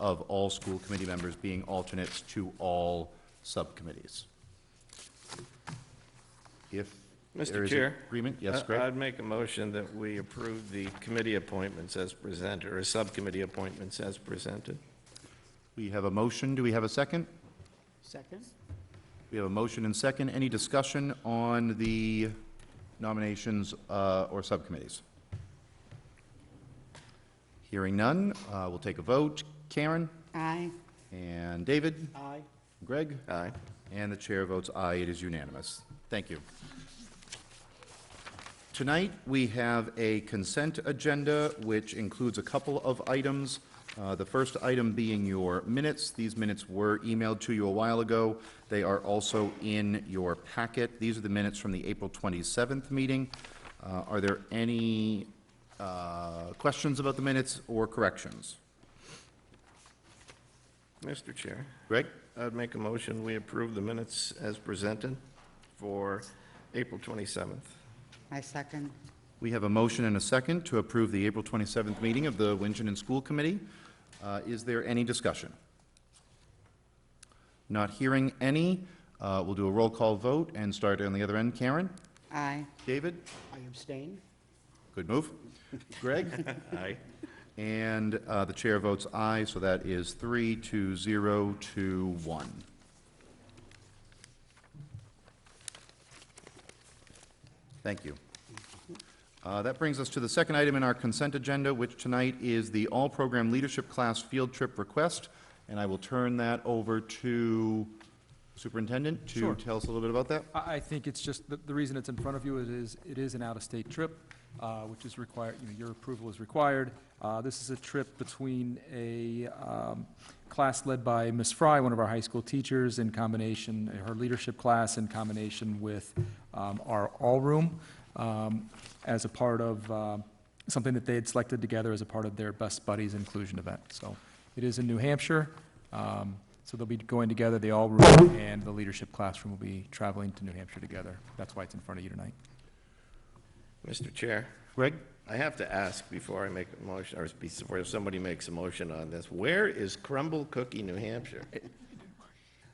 of all school committee members being alternates to all subcommittees. If there Mr. is Chair? uh, agreement, yes, I- Greg? I'd make a motion that we approve the committee appointments as presented, or subcommittee appointments as presented. We have a motion, do we have a second? Second? We have a motion and second. Any discussion on the nominations uh, or subcommittees? Hearing none, uh, we'll take a vote. Karen Aye. and David, Aye. Greg, Aye. and the chair votes aye. It is unanimous. Thank you. Tonight, we have a consent agenda, which includes a couple of items. Uh, The first item being your minutes. These minutes were emailed to you a while ago. They are also in your packet. These are the minutes from the April 27th meeting. Uh, Are there any uh, questions about the minutes or corrections? Mr. Chair, Greg? I'd make a motion, we approve the minutes as presented for April 27th. I second. We have a motion and a second to approve the April 27th meeting of the Winchendon School Committee. Uh, Is there any discussion? Not hearing any. uh, We'll do a roll call vote and start on the other end. Karen? Aye. David? I abstain? Good move. Greg? Aye. And uh, the chair votes aye, so that is three to zero to one. Thank you. Uh, That brings us to the second item in our consent agenda, which tonight is the all-program leadership class field trip request, and I will turn that over to Superintendent to Sure. tell us a little bit about that. I, I think it's just, the, the reason it's in front of you is- is, it is an out-of-state trip, uh, which is required, you know, your approval is required. Uh, this is a trip between a, um, class led by Ms. Fry, one of our high school teachers, in combination, her leadership class in combination with, um, our all room, um, as a part of, uh, something that they had selected together as a part of their Best Buddies Inclusion event. So it is in New Hampshire. Um, So they'll be going together, the all room and the leadership classroom will be traveling to New Hampshire together. That's why it's in front of you tonight. Mr. Chair, Greg? I have to ask before I make a motion, or before somebody makes a motion on this, where is Crumble Cookie, New Hampshire?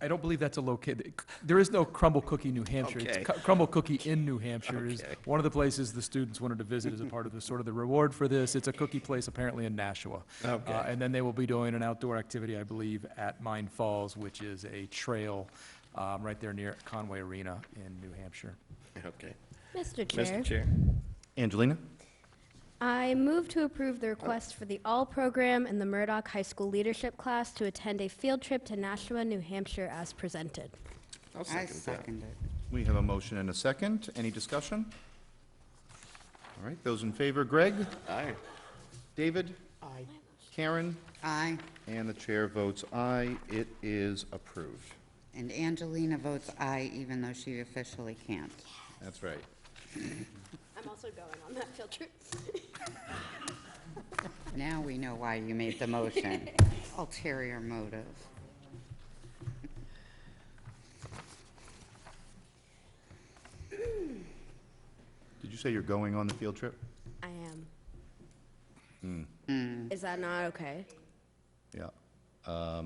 I don't believe that's a locate, there is no Crumble Cookie, New Hampshire. It's Okay. Cu- Crumble Cookie in New Hampshire is Okay. one of the places the students wanted to visit as a part of the, sort of the reward for this. It's a cookie place apparently in Nashua. Okay. Uh, And then they will be doing an outdoor activity, I believe, at Mine Falls, which is a trail um, right there near Conway Arena in New Hampshire. Okay. Mr. Mr. Chair, Chair, Angelina? I move to approve the request for the All Program and the Murdoch High School Leadership Class to attend a field trip to Nashua, New Hampshire as presented. I'll I second that. second it. We have a motion and a second. Any discussion? All right, those in favor, Greg? Aye. David, Aye. Karen, Aye. and the chair votes aye. It is approved. And Angelina votes aye, even though she officially can't. That's right. I'm also going on that field trip. Now we know why you made the motion. Ulterior motive. Did you say you're going on the field trip? I am. Is that not okay? Yeah.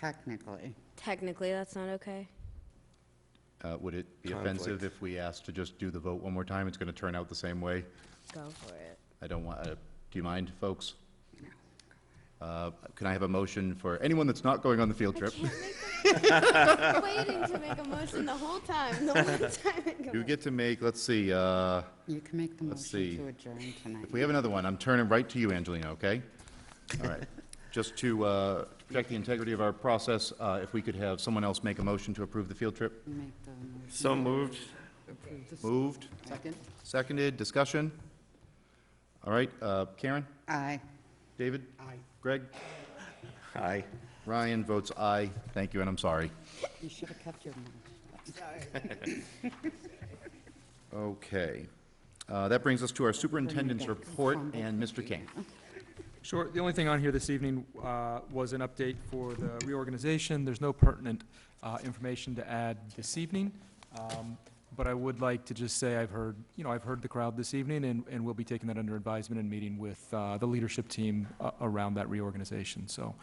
Technically, Technically, that's not okay? Uh, Would it be offensive if we asked to just do the vote one more time? It's going to turn out the same way. Go for it. I don't want, uh, do you mind, folks? Uh, Can I have a motion for anyone that's not going on the field trip? I'm waiting to make a motion the whole time, the one time it goes. You get to make, let's see, uh, you can make the Let's motion see. to adjourn tonight. If we have another one, I'm turning right to you, Angelina, okay? All right. Just to uh, to protect the integrity of our process, uh, if we could have someone else make a motion to approve the field trip? Make the motion. So moved. Moved, Second? seconded, discussion? All right, uh, Karen? Aye. David? Aye. Greg? Aye. Ryan votes aye. Thank you, and I'm sorry. You should have kept your mouth. Okay. Uh, That brings us to our superintendent's report and Mr. King. Sure. The only thing on here this evening uh, was an update for the reorganization. There's no pertinent uh, information to add this evening. Um, But I would like to just say I've heard, you know, I've heard the crowd this evening, and, and we'll be taking that under advisement and meeting with uh, the leadership team uh, around that reorganization. So